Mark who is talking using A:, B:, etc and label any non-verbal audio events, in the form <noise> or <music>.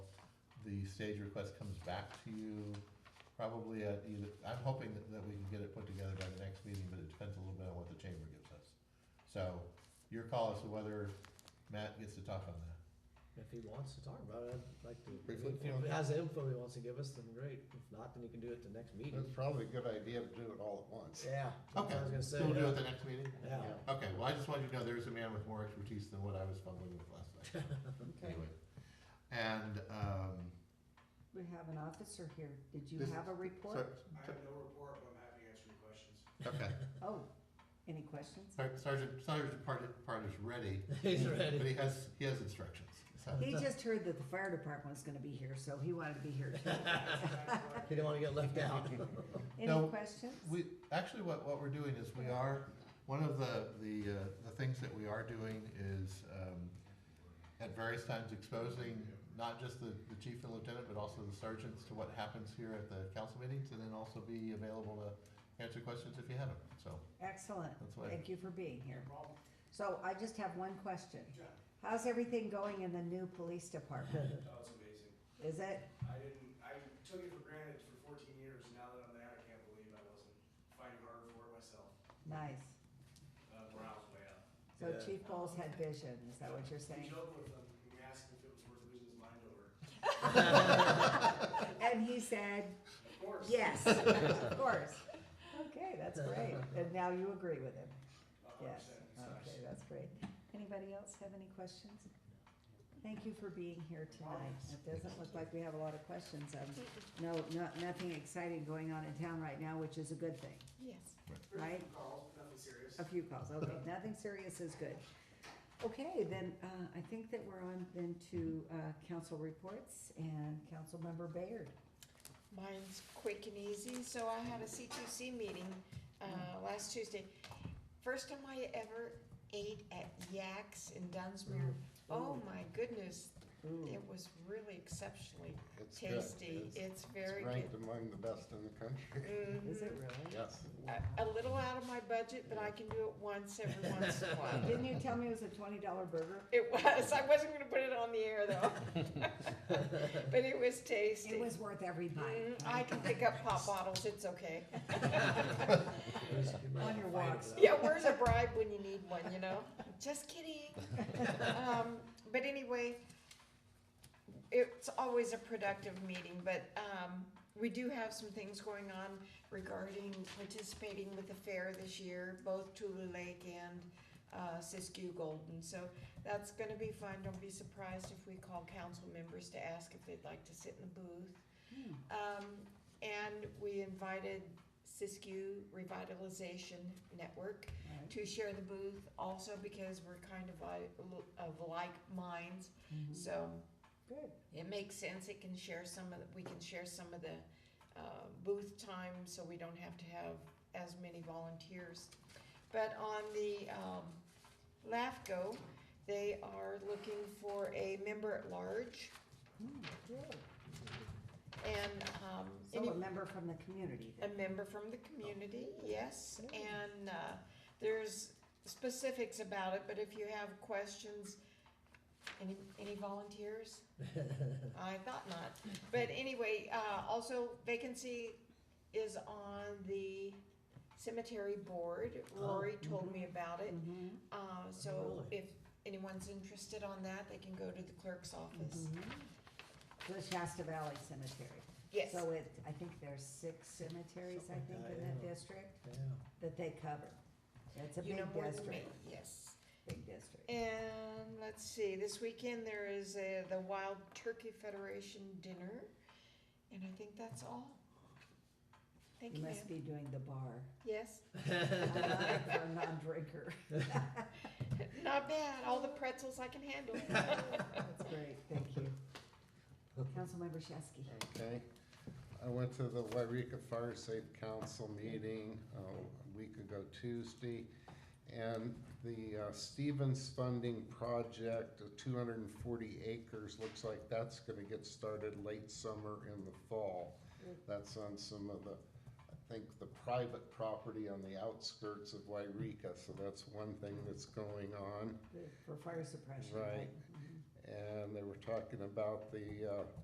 A: the stage request comes back to you probably at either, I'm hoping that, that we can get it put together by the next meeting, but it depends a little bit on what the chamber gives us. So your call as to whether Matt gets to talk on that.
B: If he wants to talk about it, I'd like to.
A: Briefly.
B: If he has the info he wants to give us, then great. If not, then he can do it the next
C: It's
B: meeting.
C: probably a good idea to do it all at once.
B: Yeah. that's what I
A: Okay,
B: was gonna
A: so we'll do it the
B: say.
A: next meeting?
B: Yeah.
A: Okay, well, I just wanted you to know there is a man with more expertise than what I was fumbling with last night.
D: Okay,
A: Anyway, And, um,
D: we have an officer here. Did you
A: This-
D: have a report?
A: Sar-
E: I have no report, but I'm happy to answer your questions.
A: okay,
D: Oh, any questions?
A: Sar- Sergeant, Sergeant Part, Part is ready,
B: <laughs> He's
A: but
B: ready.
A: he has, he has instructions, so.
D: He just heard that the fire department was gonna be here, so he wanted to be here
A: <laughs>
D: too.
B: He didn't want to get left out. <laughs>
D: Any
A: No,
D: questions?
A: We, actually, what, what we're doing is we are, one of the, the, uh, the things that we are doing is, um, at various times exposing not just the, the chief and lieutenant, but also the sergeants to what happens here at the council meetings, and then also be available to answer questions if you have them, so.
D: Excellent.
A: That's why-
D: Thank you for being here.
E: Problem?
D: So I just have one question.
E: John,
D: How's everything going in the new police department?
E: that was amazing.
D: Is it?
E: I didn't, I took it for granted for fourteen years, now that I'm there, I can't believe I wasn't fighting harder for it myself.
D: Nice.
E: Uh, morale's way up.
D: So
B: Yeah.
D: Chief Bowles had vision, is that what you're
E: We
D: saying?
E: joke with him, and we asked him if it was worth losing his mind
D: <laughs>
E: over.
D: And he said,
E: Of course.
D: yes,
A: <laughs>
D: of course. Okay, that's great. And now you agree with him?
E: A hundred
D: Yes,
E: percent, it's
D: okay,
E: nice.
D: that's great. Anybody else have any questions? Thank you for being here tonight. It doesn't look like we have a lot of questions. Um, no, not, nothing exciting going on in town right now, which is a good thing.
F: Yes.
E: There's a few
D: Right.
E: calls, but nothing serious.
D: A few calls,
F: <laughs>
D: okay, nothing serious is good. Okay, then, uh, I think that we're on then to, uh, council reports and Councilmember Bayard.
F: Mine's quick and easy. So I had a C2C meeting uh,
D: Mm-hmm.
F: last Tuesday. First time I ever ate at Yak's in Dunsmere. Oh my goodness,
D: Mm. Ooh,
F: it was really exceptionally
C: It's good.
F: tasty.
C: It's-
F: It's
C: It's
F: very
C: ranked
F: good.
C: among the best in the country.
D: is it
F: Mhm.
D: really?
C: Yes.
F: A a little out of my budget, but I can do it once every
D: <laughs>
F: once in a while.
D: Didn't you tell me it was a twenty dollar burger?
F: It was, I wasn't gonna put it on the air though. <laughs> But it was tasty.
D: It was worth every bite.
F: Mm, I can pick up pop bottles, it's okay.
D: On your walks.
F: <laughs> Yeah, where's a bribe when you need one, you know? Just <laughs> kidding. Um, but anyway, it's always a productive meeting, but, um, we do have some things going on regarding participating with the fair this year, both Tulu Lake and, uh, Siskiyou Golden, so that's gonna be fun. Don't be surprised if we call council members to ask if they'd like to sit in the booth.
D: Hmm.
F: Um, and we invited Siskiyou Revitalization Network
D: Right.
F: to share the booth also because we're kind of like, of like minds. So
D: Hmm, Good.
F: it makes sense, it can share some of, the- we can share some of the, uh, booth time, so we don't have to have as many volunteers. But on the, um, LAFCO, they are looking for a member at large
D: Hmm, good.
F: and, um. any-
D: So a member from the community
F: A
D: then.
F: member from the community,
D: Oh.
F: yes, and uh, there's specifics about it, but if you have questions, any, any
D: <laughs>
F: volunteers? I thought not, but anyway, uh, also vacancy is on the cemetery board,
D: Oh,
F: Rory
D: mm-hmm.
F: told me about it.
D: Mhm,
F: Uh, so
B: Really?
F: if anyone's interested on that, they can go to the clerk's office.
D: mhm. The Shasta Valley Cemetery.
F: Yes,
D: So it, I think there's six cemeteries, I
B: Something
D: think,
B: like
D: in
B: that,
D: that
B: yeah.
D: district
B: Yeah.
D: that they cover. It's a
F: you know
D: big
F: more than me,
D: district,
F: yes.
D: big district.
F: And let's see, this weekend there is a, the Wild Turkey Federation dinner, and I think that's all. Thank
D: You
F: you,
D: must be
F: ma'am.
D: doing the
B: <laughs>
D: bar.
F: Yes,
D: I'm
B: <laughs>
D: a non-drinker.
F: not bad, all the pretzels I can handle.
D: <laughs> That's great, thank you. Councilmember Shesky.
C: Okay. I went to the Wairika Fire Safe Council meeting uh, a week ago Tuesday. And the uh, Stevens Funding Project, uh, 240 acres, looks like that's going to get started late summer in the fall. That's on some of the, I think, the private property on the outskirts of Wairika. So that's one thing that's going on.
D: For fire suppression.
C: Right. And they were talking about the uh,